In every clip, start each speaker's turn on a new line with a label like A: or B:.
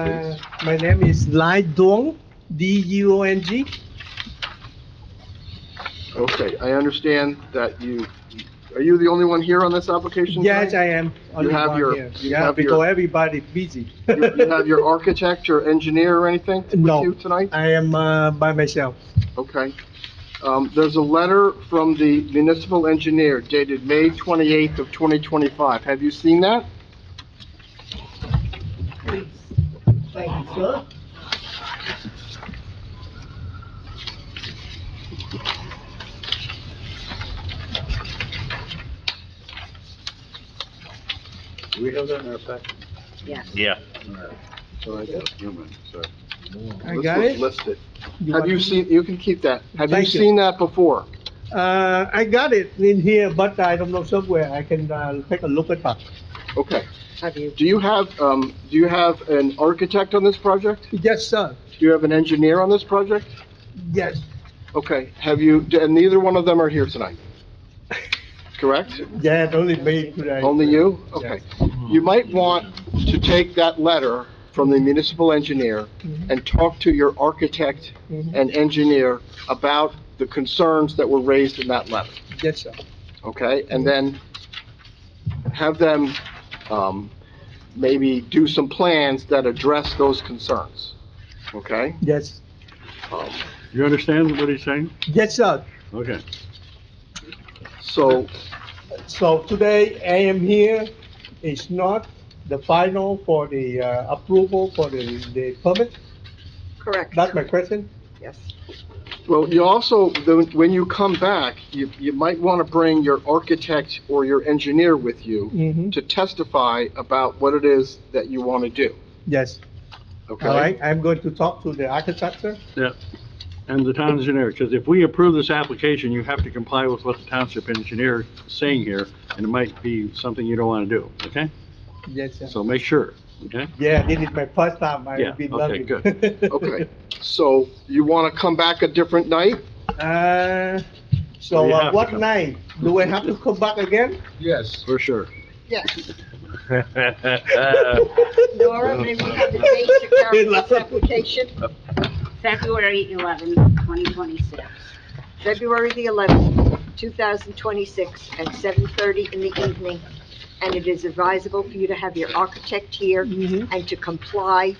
A: Uh, my name is Lai Dong, D-U-O-N-G.
B: Okay, I understand that you, are you the only one here on this application?
A: Yes,
B: tonight?
A: I am. only
B: have
A: one
B: your-
A: here.
B: you
A: Yeah,
B: have your-
A: because everybody busy.
B: You you have your architect or engineer or anything
A: No.
B: with you tonight?
A: I am uh, by myself.
B: Okay. Um, there's a letter from the municipal engineer dated May 28th of 2025. Have you seen that?
C: We have that in our packet.
D: Yeah.
C: So I got human, so.
A: I
B: Let's
A: got
B: look-
A: it.
B: List it. Have
A: want
B: you
A: me-
B: seen, you can keep that. Have you
A: Thank you.
B: seen that before?
A: Uh, I got it in here, but I don't know somewhere. I can uh, take a look at that.
B: Okay.
E: Have you?
B: Do you have, um, do you have an architect on this project?
A: Yes, sir.
B: Do you have an engineer on this project?
A: Yes,
B: Okay, have you, and neither one of them are here tonight? Correct?
A: yeah, only me today.
B: Only you? Okay. You might want to take that letter from the municipal engineer and talk to your architect
A: Mhm.
B: and engineer about the concerns that were raised in that letter,
A: Yes, sir.
B: okay? And then have them, um, maybe do some plans that address those concerns, okay?
A: Yes,
B: Um,
C: You understand what he's saying?
A: yes, sir.
C: Okay.
B: So,
A: So today I am here, it's not the final for the uh, approval for the, the permit,
E: Correct.
A: that's my question.
E: Yes.
B: Well, you also, the- when you come back, you, you might want to bring your architect or your engineer with you
A: Mm-hmm.
B: to testify about what it is that you want to do,
A: Yes,
B: okay?
A: all right, I'm going to talk to the architecture.
C: Yeah. And the town engineer, because if we approve this application, you have to comply with what the township engineer is saying here, and it might be something you don't want to do, okay?
A: Yes, sir.
C: So make sure, okay?
A: Yeah, this is my first time,
C: Yeah,
A: I've been
C: okay,
A: loving.
C: good.
B: Okay, so you want to come back a different night?
A: Uh, so
C: You
A: uh,
C: have to
A: what
C: come.
A: night, do I have to come back again?
B: Yes.
C: For sure.
E: Yes.
C: Uh,
D: February
E: Nora, may we have the date to carry this application?
D: eleventh, twenty twenty-six.
E: February the 11th, 2026, at 7:30 in the evening. And it is advisable for you to have your architect here
A: Mhm.
E: and to comply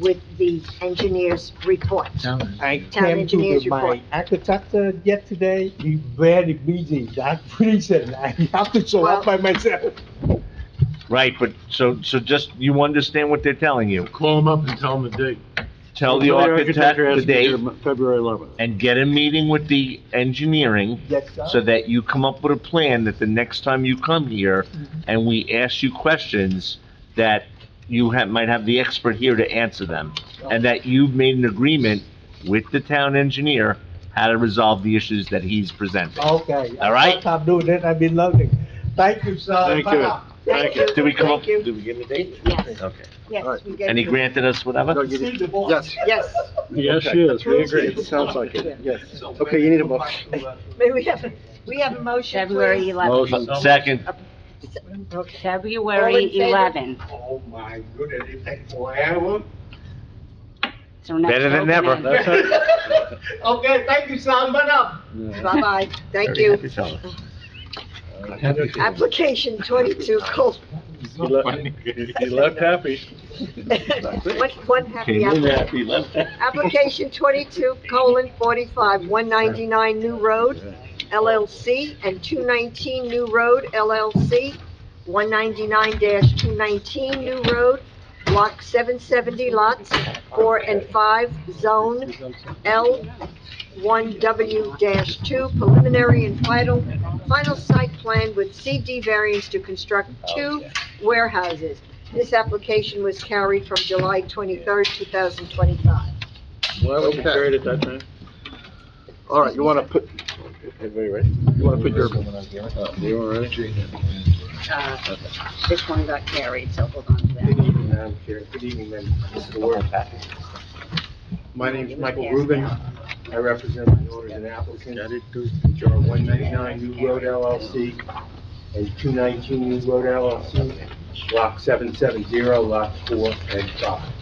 E: with the engineer's report.
A: I
E: Town
A: came to
E: engineer's
A: the- my
E: report.
A: architecture yesterday, he's very busy, that's reason I have to show up by
E: Well-
A: myself.
D: Right, but, so, so just, you understand what they're telling you?
F: Call them up and tell them the date.
D: Tell the
C: Your
D: architect
C: has to
D: the
C: be here
D: date
C: February 11th.
D: and get a meeting with the engineering
A: Yes, sir.
D: so that you come up with a plan that the next time you come here
E: Mm-hmm.
D: and we ask you questions, that you ha might have the expert here to answer them. And that you've made an agreement with the town engineer how to resolve the issues that he's presenting.
A: Okay.
D: All right.
A: What I'm doing it, I've been loving. Thank you, sir.
C: Thank you.
A: Bye-bye.
E: Thank you.
D: Did we come up,
E: Thank you.
D: did we give him a date?
E: Yes,
D: Okay.
E: yes. we gave
D: And he
E: you-
D: granted us whatever?
A: Still the boss.
B: Yes,
E: Yes.
C: Yes, she is, we agree.
B: it sounds like it, yes. Okay, you need a motion.
E: May we have, we have a motion, please?
G: February 11th.
C: Motion.
D: Second,
E: All in
G: February
E: favor?
G: 11th.
H: Oh my goodness, it takes forever.
G: So next
D: Better than
G: opening.
D: never.
C: That's it.
H: Okay, thank you, Sam, but up.
E: Bye-bye. Thank
D: Very happy
E: you.
D: fellow.
E: Application 22, Col-
C: He le- he left happy.
E: One, one happy
D: Came in
E: application.
D: happy, left happy.
E: Application twenty-two colon forty-five, one ninety-nine New Road LLC and two nineteen New Road LLC, one ninety-nine two nineteen New Road, block seven seventy, lots four and five, zone L one W two, preliminary and final, final site plan with CD variance to construct two warehouses. This application was carried from July twenty-third, two thousand twenty-five.
C: Why
B: was it carried
C: at that time?
B: All right, you want to put,
C: Everybody ready?
B: you want to put your,
C: You all ready?
G: Uh, This one got carried, so hold on to that.
H: Good evening, Madam Chair. This is the word. My name is Michael Rubin. I represent the owners and applicants, which are 199 New Road LLC and 219 New Road LLC, Block 770, Lot 4 and 5.